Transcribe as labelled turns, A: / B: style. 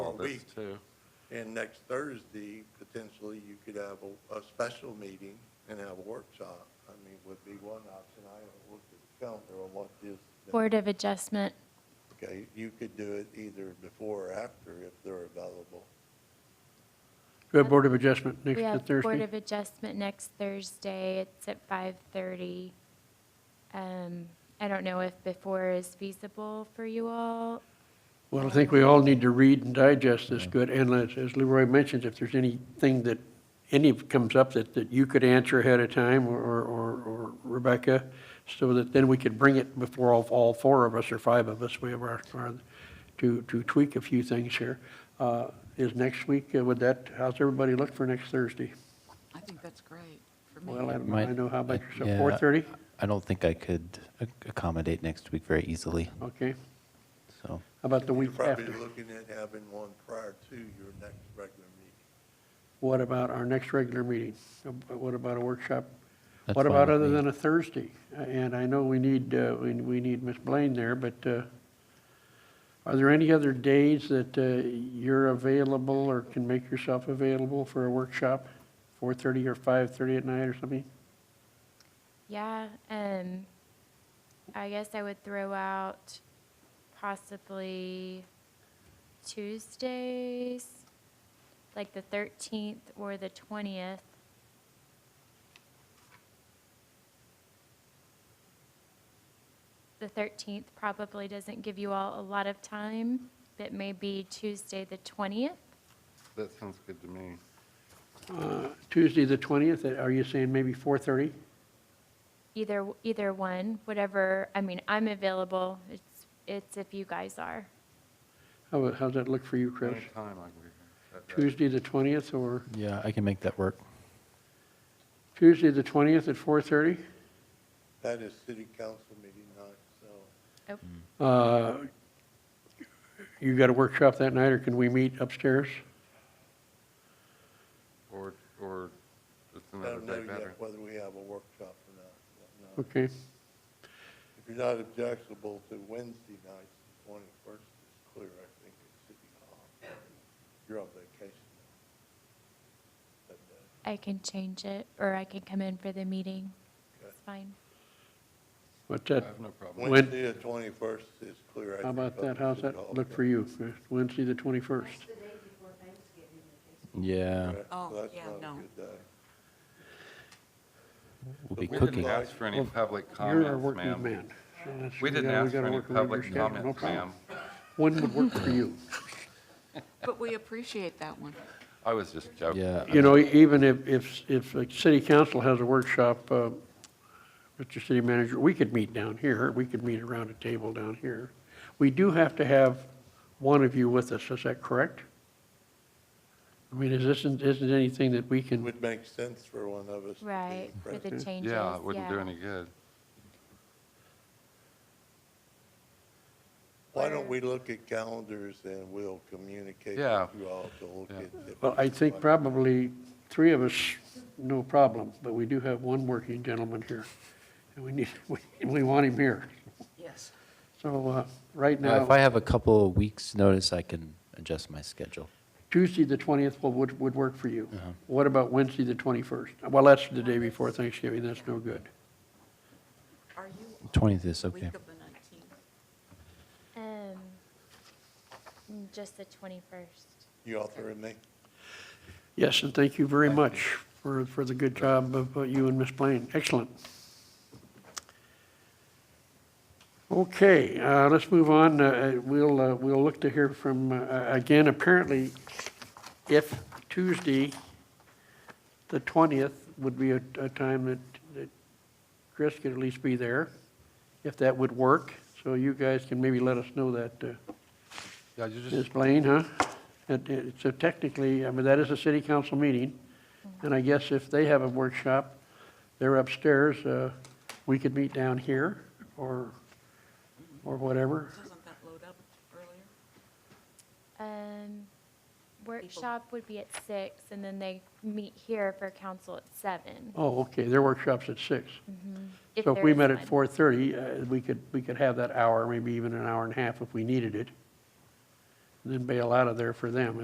A: this
B: week.
A: too.
B: And next Thursday, potentially, you could have a, a special meeting and have a workshop. I mean, would be one option. I haven't looked at the calendar on what is.
C: Board of Adjustment,
B: Okay, you could do it either before or after if they're available.
D: We have Board of Adjustment
C: we
D: next
C: have Board
D: Thursday.
C: of Adjustment next Thursday, it's at 5:30. Um, I don't know if before is feasible for you all.
D: Well, I think we all need to read and digest this good, and as- as Leroy mentions, if there's anything that, any comes up that, that you could answer ahead of time, or, or or Rebecca, so that then we could bring it before all, all four of us, or five of us, we have our, our- to, to tweak a few things here. Uh, Is next week, uh, would that, how's everybody look for next Thursday?
E: I think that's great for me.
D: Well, I don't know,
F: Might-
D: I know, how about
F: uh,
D: yourself,
F: yeah,
D: 4:30?
F: I don't think I could ac- accommodate next week very easily,
D: Okay,
F: so.
D: how about the week
B: You're
D: after?
B: Probably looking at having one prior to your next regular meeting.
D: What about our next regular meeting? Uh, What about a workshop?
F: that's
D: What
F: fine
D: about
F: with
D: other
F: me.
D: than a Thursday? Uh, And I know we need, uh, we we need Ms. Blaine there, but uh, are there any other days that uh, you're available or can make yourself available for a workshop? 4:30 or 5:30 at night or something?
C: Yeah, um, I guess I would throw out possibly Tuesdays, like the 13th or the 20th. The 13th probably doesn't give you all a lot of time, but maybe Tuesday, the 20th.
A: That sounds good to me.
D: Uh, Tuesday, the 20th, are you saying maybe 4:30?
C: Either, either one, whatever, I mean, I'm available. It's, it's if you guys are.
D: How How's that look for you, Chris?
A: Anytime I can be here. That- that-
D: Tuesday, the 20th, or
F: Yeah, I can make that work.
D: Tuesday, the 20th at 4:30?
B: That is city council meeting night, so
D: Uh, You got a workshop that night, or can we meet upstairs?
A: Or, or it's
B: I
A: another
B: don't know
A: day
B: yet
A: better.
B: whether we have a workshop or not. No.
D: Okay.
B: If you're not objectionable to Wednesday nights, the twenty-first is clear, I think, at City Hall. You're on vacation. uh, That day.
C: I can change it, or I can come in for the meeting. It's fine.
D: What's
A: I
D: that,
A: have no problem.
D: When-
B: Wednesday, the twenty-first is clear. I
D: how
B: think,
D: about
B: up
D: that,
B: at
D: how's
B: City
D: that
B: Hall.
D: look for you, Chris? Wednesday, the 21st?
F: Yeah,
B: Correct.
E: Oh,
B: So that's
E: yeah,
B: not a
E: no.
B: good day.
F: we'll
A: We
F: be
A: didn't
F: cooking.
A: ask for any
D: Well,
A: public
D: You're our
A: comments,
D: working
A: ma'am.
D: man. so that's-
A: We didn't
D: gotta-
A: ask for
D: gotta
A: any
D: work around your
A: public
D: schedule, no
A: comments,
D: problem.
A: ma'am.
D: When would work for you?
E: But we appreciate that one.
A: I was just joking.
F: Yeah.
D: You know, even if, if, if the city council has a workshop, uh, Mr. City Manager, we could meet down here, we could meet around a table down here. We do have to have one of you with us, is that correct? I mean, is this, isn't anything that we
B: It
D: can,
B: would make sense for one of us to
C: Right,
B: be
C: for the
B: present.
C: changes,
A: Yeah, it wouldn't do
C: yeah.
A: any good.
B: Why don't we look at calendars and we'll communicate
A: Yeah.
B: with you all to look
A: Yeah.
B: at. the-
D: well, I think probably three of us, no problem, but we do have one working gentleman here. And we need, we, we want him here.
E: Yes.
D: So, uh, right
F: Now, if I
D: now,
F: have a couple of weeks' notice, I can adjust my schedule.
D: Tuesday, the twentieth, would, would work for you. What about Wednesday, the twenty-first? Well, that's the day before Thanksgiving, that's no good.
E: Are you
F: 20th is
E: week
F: okay.
E: of the 19th?
C: Um, mm, just the 21st.
B: You offering me?
D: Yes, and thank you very much for, for the good job of uh, you and Ms. Blaine. Excellent. Okay, uh, let's move on. Uh, uh, We'll, uh, we'll look to hear from, uh, again, apparently, if Tuesday, the 20th, would be a, a time that, that Chris could at least be there, if that would work. So you guys can maybe let us know that, uh,
A: Yeah, you
D: Ms.
A: just,
D: Blaine, huh? It- it- So technically, I mean, that is a city council meeting, and I guess if they have a workshop, they're upstairs, uh, we could meet down here, or, or whatever.
E: Doesn't that load up earlier?
C: Um, workshop would be at six, and then they meet here for council at seven.
D: Oh, okay, their workshop's at six. So if
C: there
D: we
C: is
D: met at
C: one.
D: 4:30, uh, we could, we could have that hour, maybe even an hour and a half if we needed it. and then bail out of there for them.